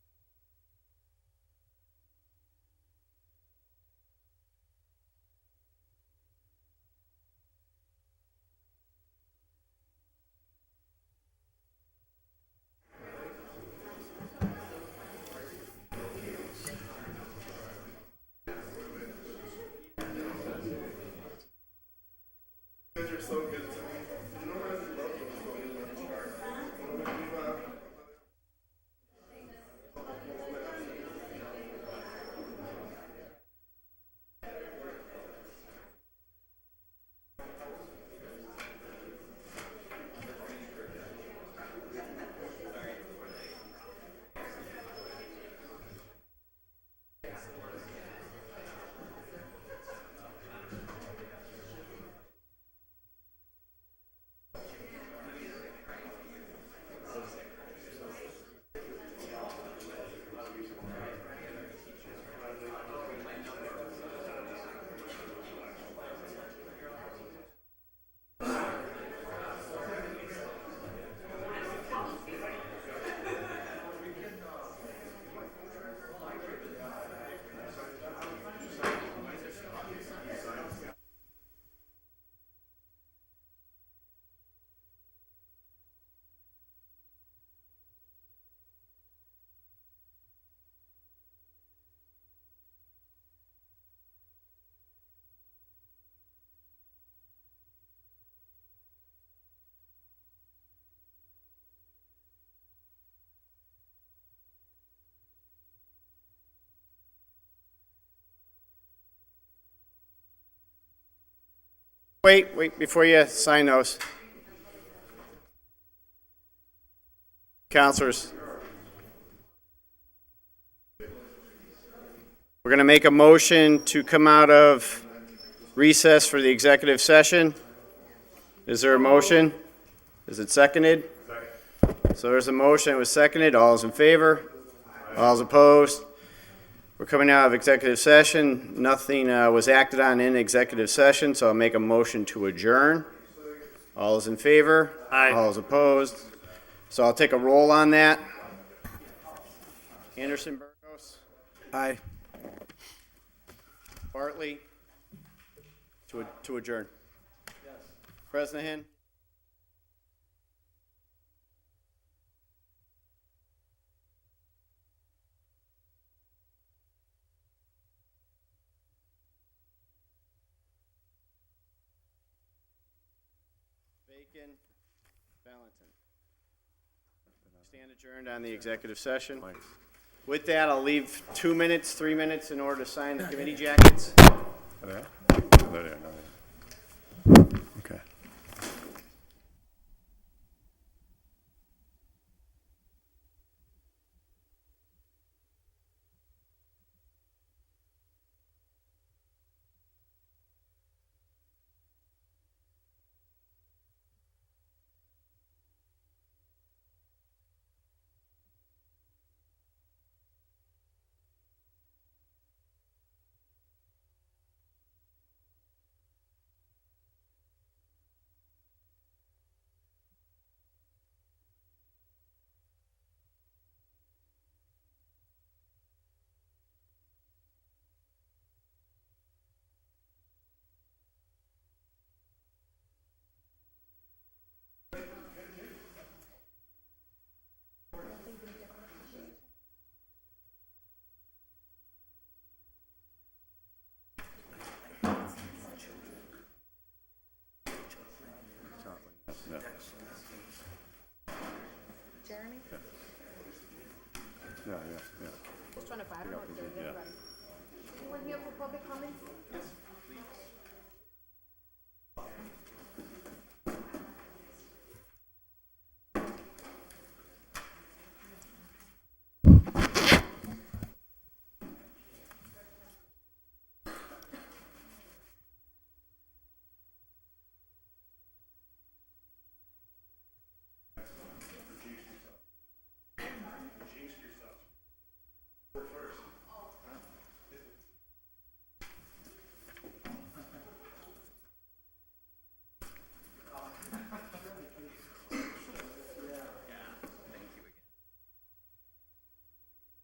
Wait, wait, before you sign those. Counselors. We're going to make a motion to come out of recess for the executive session. Is there a motion? Is it seconded? So there's a motion, it was seconded, all's in favor? All's opposed? We're coming out of executive session. Nothing uh, was acted on in executive session, so I'll make a motion to adjourn. All is in favor? Aye. All is opposed? So I'll take a roll on that. Anderson Burgos? Aye. Bartley? To ad- to adjourn. Bresnahan? Bacon? Valentin? Stand adjourned on the executive session. With that, I'll leave two minutes, three minutes in order to sign the committee jackets. There? There, there, there. Okay. Jeremy? Yeah, yeah, yeah. Just trying to find out if there's anybody. We're here for public comments?